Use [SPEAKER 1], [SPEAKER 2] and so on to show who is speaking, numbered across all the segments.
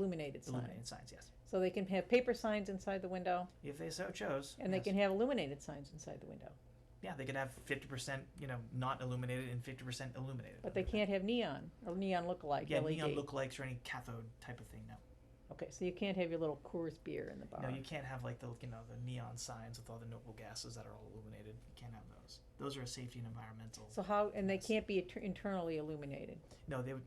[SPEAKER 1] illuminated signs.
[SPEAKER 2] illuminated signs, yes,
[SPEAKER 1] So they can have paper signs inside the window,
[SPEAKER 2] if they so chose.
[SPEAKER 1] and they
[SPEAKER 2] yes.
[SPEAKER 1] can have illuminated signs inside the window,
[SPEAKER 2] Yeah, they could have fifty percent, you know, not illuminated and fifty percent illuminated.
[SPEAKER 1] but they can't have neon or neon lookalike
[SPEAKER 2] Yeah,
[SPEAKER 1] LED.
[SPEAKER 2] neon lookalikes or any cathode type of thing. No,
[SPEAKER 1] Okay, so you can't have your little Coors beer in the bar.
[SPEAKER 2] no, you can't have like the you know the neon signs with all the noble gases that are all illuminated. You can't have those. Those are a safety and environmental.
[SPEAKER 1] So how, and they
[SPEAKER 2] Yes.
[SPEAKER 1] can't be inter- internally illuminated.
[SPEAKER 2] no, they would.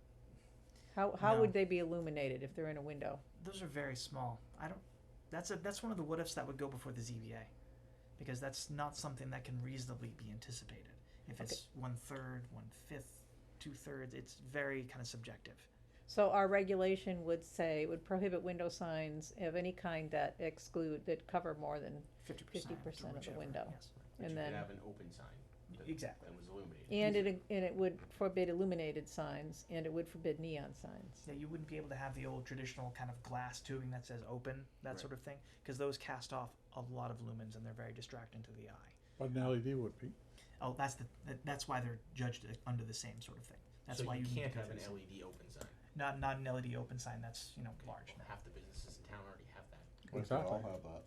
[SPEAKER 1] How, how would
[SPEAKER 2] No.
[SPEAKER 1] they be illuminated if they're in a window?
[SPEAKER 2] Those are very small. I don't. That's a that's one of the what ifs that would go before the ZBA, because that's not something that can reasonably be anticipated. If
[SPEAKER 1] Okay.
[SPEAKER 2] it's one third, one fifth, two thirds, it's very kind of subjective.
[SPEAKER 1] So our regulation would say, would prohibit window signs of any kind that exclude, that cover more than,
[SPEAKER 2] Fifty percent.
[SPEAKER 1] 50% of the window.
[SPEAKER 2] Yes.
[SPEAKER 3] But
[SPEAKER 1] and
[SPEAKER 3] you could
[SPEAKER 1] then,
[SPEAKER 3] have an open sign that-
[SPEAKER 2] Exactly.
[SPEAKER 3] that was
[SPEAKER 1] and
[SPEAKER 3] illuminated.
[SPEAKER 1] it, and it would forbid illuminated signs, and it would forbid neon signs.
[SPEAKER 2] Yeah, you wouldn't be able to have the old traditional kind of glass tubing that says open, that
[SPEAKER 3] Right.
[SPEAKER 2] sort of thing, because those cast off a lot of lumens and they're very distracting to the eye.
[SPEAKER 4] But an LED would be.
[SPEAKER 2] Oh, that's the that- that's why they're judged uh, under the same sort of thing. That's
[SPEAKER 3] So
[SPEAKER 2] why
[SPEAKER 3] you
[SPEAKER 2] need to
[SPEAKER 3] can't
[SPEAKER 2] go
[SPEAKER 3] have
[SPEAKER 2] through
[SPEAKER 3] an
[SPEAKER 2] this.
[SPEAKER 3] LED open sign.
[SPEAKER 2] Not not an LED open sign. That's you know large.
[SPEAKER 3] Half the businesses in town already have that,
[SPEAKER 4] We could all have that.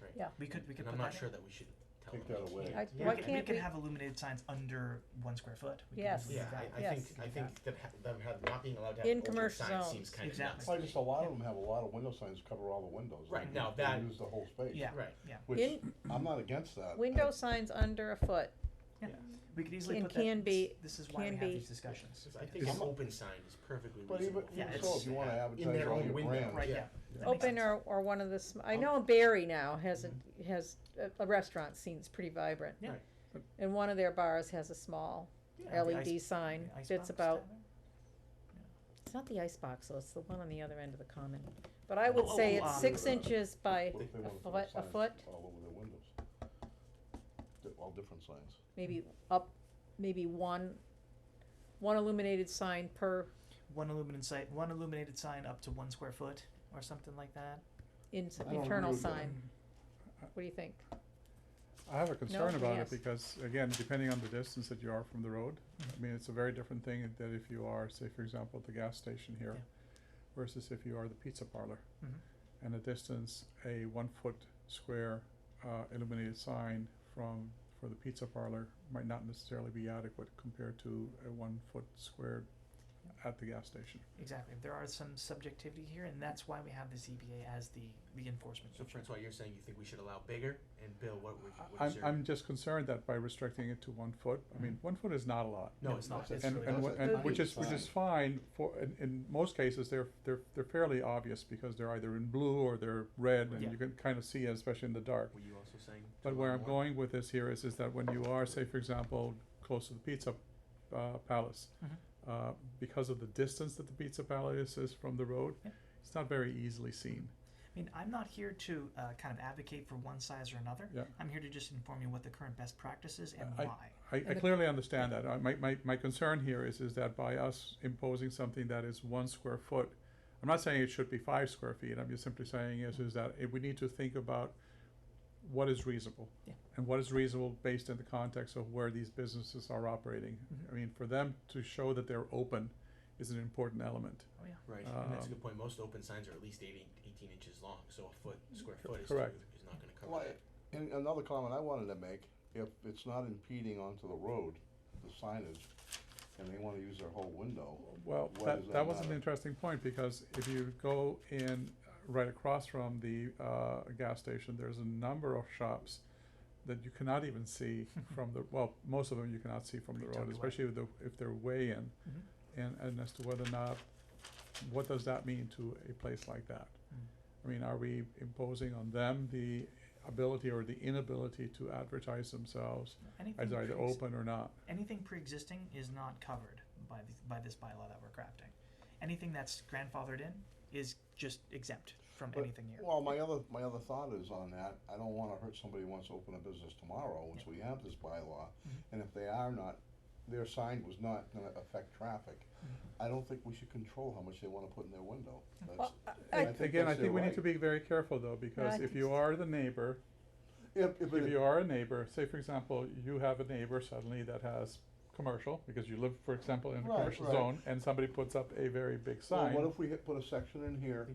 [SPEAKER 3] right?
[SPEAKER 1] Yeah.
[SPEAKER 2] We could we could put
[SPEAKER 3] And I'm
[SPEAKER 2] that
[SPEAKER 3] not
[SPEAKER 2] in.
[SPEAKER 3] sure that we should tell them.
[SPEAKER 4] Take that
[SPEAKER 3] they
[SPEAKER 4] away.
[SPEAKER 3] can't.
[SPEAKER 1] I-
[SPEAKER 2] Yeah,
[SPEAKER 1] Why
[SPEAKER 2] we could,
[SPEAKER 1] can't
[SPEAKER 2] we could
[SPEAKER 1] we-
[SPEAKER 2] have illuminated signs under one square foot. We could
[SPEAKER 1] Yes.
[SPEAKER 2] easily
[SPEAKER 3] Yeah,
[SPEAKER 2] do that.
[SPEAKER 3] I, I
[SPEAKER 1] Yes.
[SPEAKER 3] think, I
[SPEAKER 2] Yeah.
[SPEAKER 3] think that ha- them have, not being allowed to have
[SPEAKER 1] In
[SPEAKER 3] an open
[SPEAKER 1] commercial
[SPEAKER 3] sign
[SPEAKER 1] zones.
[SPEAKER 3] seems kind of
[SPEAKER 2] Exactly.
[SPEAKER 3] nuts.
[SPEAKER 4] Well, just a lot of them have a lot of window signs cover all the windows.
[SPEAKER 3] Right,
[SPEAKER 4] and
[SPEAKER 3] now
[SPEAKER 4] they
[SPEAKER 3] that-
[SPEAKER 4] Use the whole space.
[SPEAKER 2] Yeah.
[SPEAKER 3] Right,
[SPEAKER 2] Yeah,
[SPEAKER 4] Which,
[SPEAKER 1] In,
[SPEAKER 4] I'm not against that.
[SPEAKER 1] window
[SPEAKER 3] uh,
[SPEAKER 1] signs under a foot,
[SPEAKER 2] we could easily
[SPEAKER 1] And
[SPEAKER 2] put that-
[SPEAKER 1] can be-
[SPEAKER 2] This is why
[SPEAKER 1] can
[SPEAKER 2] we have
[SPEAKER 1] be-
[SPEAKER 2] these discussions.
[SPEAKER 3] Because I
[SPEAKER 2] Yes.
[SPEAKER 3] think
[SPEAKER 4] Yeah.
[SPEAKER 3] an open sign is perfectly
[SPEAKER 4] But even,
[SPEAKER 3] reasonable.
[SPEAKER 2] Yeah,
[SPEAKER 4] even
[SPEAKER 2] it's-
[SPEAKER 4] so, if you wanna
[SPEAKER 3] in
[SPEAKER 4] advertise
[SPEAKER 3] their
[SPEAKER 4] all
[SPEAKER 3] own
[SPEAKER 4] your
[SPEAKER 3] window,
[SPEAKER 4] brands.
[SPEAKER 2] Right. Yeah. That makes
[SPEAKER 1] open
[SPEAKER 2] sense.
[SPEAKER 1] or, or one of the, sm- I
[SPEAKER 2] Oh.
[SPEAKER 1] know Barry now has a, has, a- a restaurant scene's pretty vibrant.
[SPEAKER 2] Yeah.
[SPEAKER 3] Right.
[SPEAKER 1] And one of their bars has a small
[SPEAKER 2] Yeah, the
[SPEAKER 1] LED
[SPEAKER 2] ice-
[SPEAKER 1] sign
[SPEAKER 2] the ice
[SPEAKER 1] that's
[SPEAKER 2] box
[SPEAKER 1] about,
[SPEAKER 2] down there?
[SPEAKER 1] it's not the icebox, though, it's the one on the other end of the common. But I would
[SPEAKER 2] Oh,
[SPEAKER 1] say
[SPEAKER 2] oh,
[SPEAKER 1] it's
[SPEAKER 2] um,
[SPEAKER 1] six inches by
[SPEAKER 4] What if they
[SPEAKER 1] a
[SPEAKER 4] wanna put
[SPEAKER 1] foot, a
[SPEAKER 4] signs
[SPEAKER 1] foot,
[SPEAKER 4] All over their windows. Di- All different signs.
[SPEAKER 1] maybe up, maybe one, one illuminated sign per,
[SPEAKER 2] one illuminated sign, one illuminated sign up to one square foot or something like that. Mm,
[SPEAKER 1] in,
[SPEAKER 4] I don't
[SPEAKER 1] internal
[SPEAKER 4] agree with that.
[SPEAKER 1] sign. What do you think?
[SPEAKER 5] I have a concern about
[SPEAKER 1] yes.
[SPEAKER 5] it because, again, depending on the distance that you are from the road, I mean, it's a very different thing than if you are, say, for example, at the gas station here
[SPEAKER 2] Yeah.
[SPEAKER 5] versus if you are the pizza parlor.
[SPEAKER 2] Mhm.
[SPEAKER 5] And the distance, a one-foot square uh, illuminated sign from, for the pizza parlor might not necessarily be adequate compared to a one-foot square at the gas station.
[SPEAKER 2] Exactly. There are some subjectivity here, and that's why we have the ZBA as the the enforcement.
[SPEAKER 3] So Francois, you're saying you think we should allow bigger, and Bill, what would,
[SPEAKER 5] I-
[SPEAKER 3] what is
[SPEAKER 5] I'm,
[SPEAKER 3] your?
[SPEAKER 5] I'm just concerned that by restricting it to one foot, I mean, one foot is not a lot.
[SPEAKER 3] No, it's not,
[SPEAKER 2] It's
[SPEAKER 5] And,
[SPEAKER 2] really
[SPEAKER 5] and,
[SPEAKER 2] not.
[SPEAKER 5] wha- and
[SPEAKER 1] But
[SPEAKER 5] which
[SPEAKER 4] it's
[SPEAKER 5] is, which is
[SPEAKER 4] fine.
[SPEAKER 5] fine for, in, in most cases, they're, they're, they're fairly obvious because they're either in blue or they're red
[SPEAKER 2] Yeah.
[SPEAKER 5] and you can kind of see, it, especially in the dark.
[SPEAKER 3] were you also saying? to
[SPEAKER 5] But where
[SPEAKER 3] allow
[SPEAKER 5] I'm
[SPEAKER 3] more?
[SPEAKER 5] going with this here is, is that when you are, say, for example, close to the Pizza, uh, Palace,
[SPEAKER 2] Mhm.
[SPEAKER 5] uh, because of the distance that the Pizza Palace is from the road,
[SPEAKER 2] Yeah.
[SPEAKER 5] it's not very easily seen.
[SPEAKER 2] I mean, I'm not here to uh, kind of advocate for one size or another.
[SPEAKER 5] Yeah.
[SPEAKER 2] I'm here to just inform you what the current best practice is and
[SPEAKER 5] I-
[SPEAKER 2] why.
[SPEAKER 5] I, I
[SPEAKER 1] the-
[SPEAKER 5] clearly understand that. I, my, my, my concern here is, is that by us imposing something that is one square foot, I'm not saying it should be five square feet, I'm just simply saying is, is that it, we need to think about what is reasonable.
[SPEAKER 2] Yeah.
[SPEAKER 5] And what is reasonable based in the context of where these businesses are operating.
[SPEAKER 2] Mhm.
[SPEAKER 5] I mean, for them to show that they're open is an important element.
[SPEAKER 2] Oh yeah.
[SPEAKER 3] Right, and that's a
[SPEAKER 5] Um,
[SPEAKER 3] good point, most open signs are at least 80 18 inches long, so a foot, square foot is,
[SPEAKER 5] correct.
[SPEAKER 3] is not gonna
[SPEAKER 4] Well,
[SPEAKER 3] cover that.
[SPEAKER 4] And another comment I wanted to make, if it's not impeding onto the road, the signage, and they wanna use their whole window,
[SPEAKER 5] Well,
[SPEAKER 4] Why does
[SPEAKER 5] that,
[SPEAKER 4] that
[SPEAKER 5] that was an
[SPEAKER 4] matter?
[SPEAKER 5] interesting point, because if you go in uh, right across from the, uh, gas station, there's a number of shops that you cannot even see from the, well, most of them you cannot see from the
[SPEAKER 2] Pretty
[SPEAKER 5] road,
[SPEAKER 2] tucked away.
[SPEAKER 5] especially if the, if they're way in.
[SPEAKER 2] Mhm.
[SPEAKER 5] And, and as to whether or not, what does that mean to a place like that?
[SPEAKER 2] Mm.
[SPEAKER 5] I mean, are we imposing on them the ability or the inability to advertise themselves
[SPEAKER 2] Anything
[SPEAKER 5] as either
[SPEAKER 2] pre-
[SPEAKER 5] open or not?
[SPEAKER 2] anything pre-existing is not covered by this, by this bylaw that we're crafting. Anything that's grandfathered in is just exempt from
[SPEAKER 4] But-
[SPEAKER 2] anything here.
[SPEAKER 4] Well, my other, my other thought is on that, I don't wanna hurt somebody who wants to open a business tomorrow, once we have this bylaw.
[SPEAKER 2] Mm-hmm.
[SPEAKER 4] And if they are not, their sign was not gonna affect traffic.
[SPEAKER 2] Mm-hmm.
[SPEAKER 4] I don't think we should control how much they wanna put in their window. That's-
[SPEAKER 1] I-
[SPEAKER 4] and think
[SPEAKER 5] Again, I
[SPEAKER 4] that's
[SPEAKER 5] think
[SPEAKER 4] their
[SPEAKER 5] we
[SPEAKER 4] right.
[SPEAKER 5] need to be very careful though, because
[SPEAKER 1] think
[SPEAKER 5] if you
[SPEAKER 1] so.
[SPEAKER 5] are the neighbor,
[SPEAKER 4] If, if
[SPEAKER 5] if
[SPEAKER 4] it,
[SPEAKER 5] you are a neighbor, say for example, you have a neighbor suddenly that has commercial, because you live, for example, in a
[SPEAKER 4] Right,
[SPEAKER 5] commercial
[SPEAKER 4] right.
[SPEAKER 5] zone, and somebody puts up a very big sign.
[SPEAKER 4] Well, what if we hit, put a section in here